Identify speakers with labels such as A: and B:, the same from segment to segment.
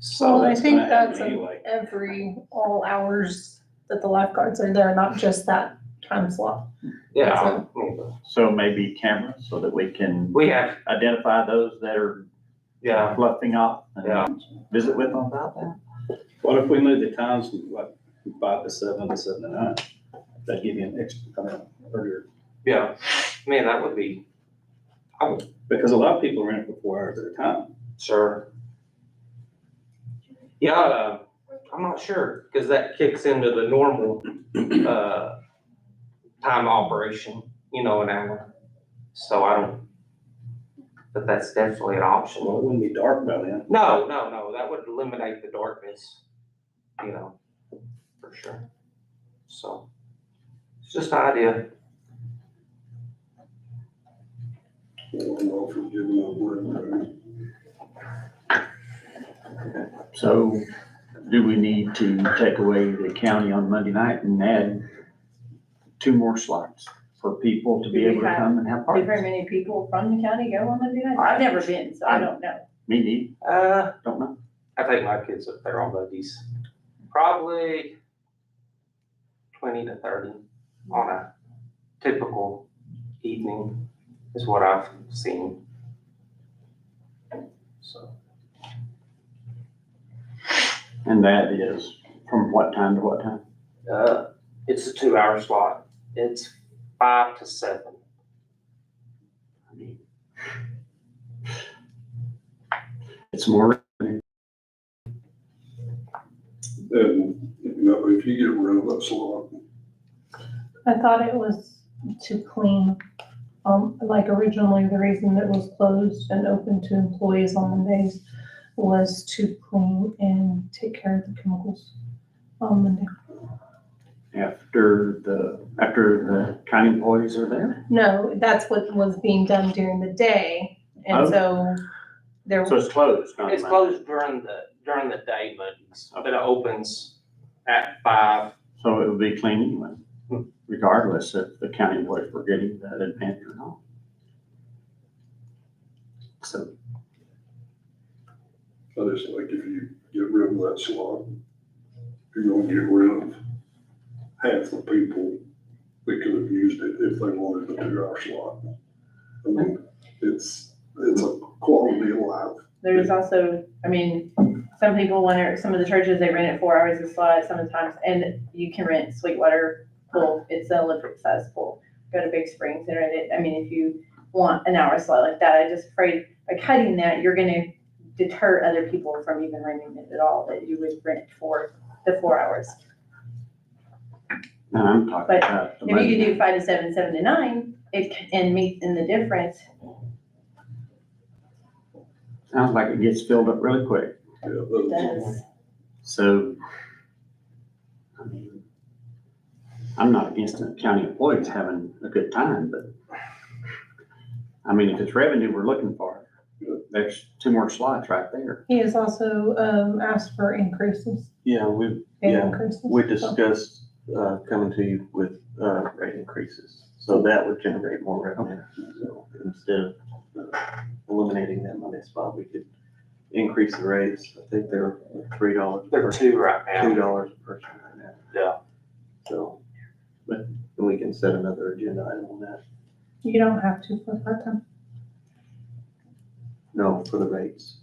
A: So
B: Well, I
A: that's
B: think
A: gonna
B: that's
A: happen
B: a-
A: anyway.
B: every, all hours that the lifeguards are there, not just that time slot.
A: Yeah,
C: So maybe cameras so that we can
A: we have,
C: identify those that are
A: yeah,
C: bluffing up
A: Yeah.
C: and visit with them about that.
D: What if we move the times from what, from five to seven, to seven to nine? That'd give you an extra, I mean, earlier,
A: yeah. Man, that would be,
D: because a lot of people rent for four hours at a time.
A: sure. Yeah, uh, I'm not sure, because that kicks into the normal, uh, time operation, you know, an hour. So I don't, but that's definitely an option.
D: Well, it wouldn't be dark by then.
A: No, no, no, that would eliminate the darkness, you know, for sure. So, it's just an idea.
C: So do we need to take away the county on Monday night and add two more slots for people to be
E: Do we
C: able to
E: have-
C: come and have
E: Do very
C: parties?
E: many people from the county go on Monday night? I've never been, so I don't know.
C: Me neither,
A: Uh,
C: don't know.
A: I take my kids up there on buggies, probably twenty to thirty on a typical evening is what I've seen. So,
C: And that is from what time to what time?
A: uh, it's a two-hour slot. It's five to seven.
C: It's more,
F: Then, you know, if you get rid of that slot,
B: I thought it was to clean, um, like originally, the reason that it was closed and open to employees on Mondays was to clean and take care of the chemicals on Monday.
C: after the, after the county employees are there.
B: No, that's what was being done during the day, and
C: Oh.
B: so there,
C: So it's closed, not
A: It's
C: Monday.
A: closed during the, during the day Mondays, but it opens at five.
C: So it would be clean anyway, regardless if the county employees were getting that advantage or not. So,
F: I just like if you get rid of that slot, you're gonna get rid of half the people that could have used it if they wanted the two-hour slot. I mean, it's, it's a quality of life.
E: There's also, I mean, some people want to, some of the churches, they rent it four hours a slot sometimes, and you can rent Sweetwater Pool. It's an Olympic sized pool. Go to Big Springs and rent it. I mean, if you want an hour slot like that, I just afraid by cutting that, you're gonna deter other people from even renting it at all, that you would rent for the four hours.
C: and I'm talking
E: But
C: about the
E: If you
C: Monday
E: could
C: night.
E: do five to seven, seven to nine, it, c- and meet in the difference,
C: Sounds like it gets filled up really quick,
F: Yeah, those-
E: does.
C: so. I mean, I'm not against the county employees having a good time, but. I mean, if it's revenue we're looking for, there's two more slots right there.
B: he has also, um, asked for increases,
G: Yeah, we,
B: pay
G: Yeah,
B: increases.
G: we
B: so.
G: discussed, uh, coming to you with, uh, rate increases, so that would generate more revenue. So instead of uh, eliminating that Monday spot, we could increase the rates, I think they're three dollars.
A: There are two right
G: Two
A: now.
G: dollars per person right now.
A: Yeah.
G: So, but we can set another agenda item on that,
B: You don't have to for part-time.
G: no, for the rates,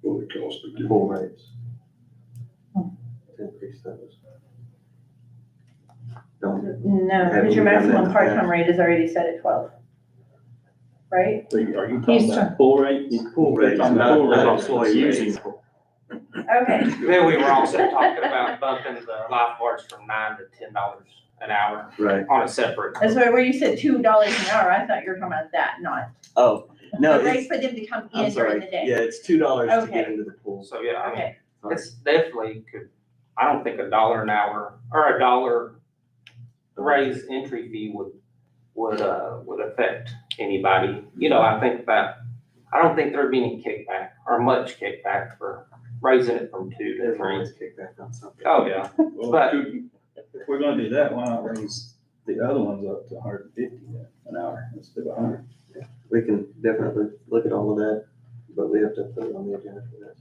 F: What it costs to get.
G: full rates.
B: Hmm.
G: Increase those. Don't,
E: No,
G: Have
E: because your
G: we done
E: maximum
G: that?
E: part-time rate is already set at twelve. Right?
D: So you- Are you
B: He's
D: talking about pool rates?
G: full rates,
D: on the
G: not,
D: full
G: not
D: rates.
G: employee
C: Using-
G: rates.
E: Okay,
A: Then we were also talking about bumping the lifeguards from nine to ten dollars an hour
G: Right,
A: on a separate.
E: that's where, where you said two dollars an hour, I thought you were talking about that, not.
G: oh, no,
E: The
G: it's,
E: rate for them to come
G: I'm
E: in during the
G: sorry,
E: day.
G: yeah, it's two dollars to get
E: Okay.
G: into the pool.
A: So, yeah, I mean,
E: Okay,
A: it's definitely could, I don't think a dollar an hour or a dollar raise entry fee would, would, uh, would affect anybody. You know, I think that, I don't think there'd be any kickback or much kickback for raising it from two to three.
G: Everyone's kicked back on something.
A: Oh, yeah.
D: Well,
A: But-
D: couldn't- If we're gonna do that, why not raise the other ones up to hundred and fifty an hour instead of hundred?
G: We can definitely look at all of that, but we have to put it on the agenda for that.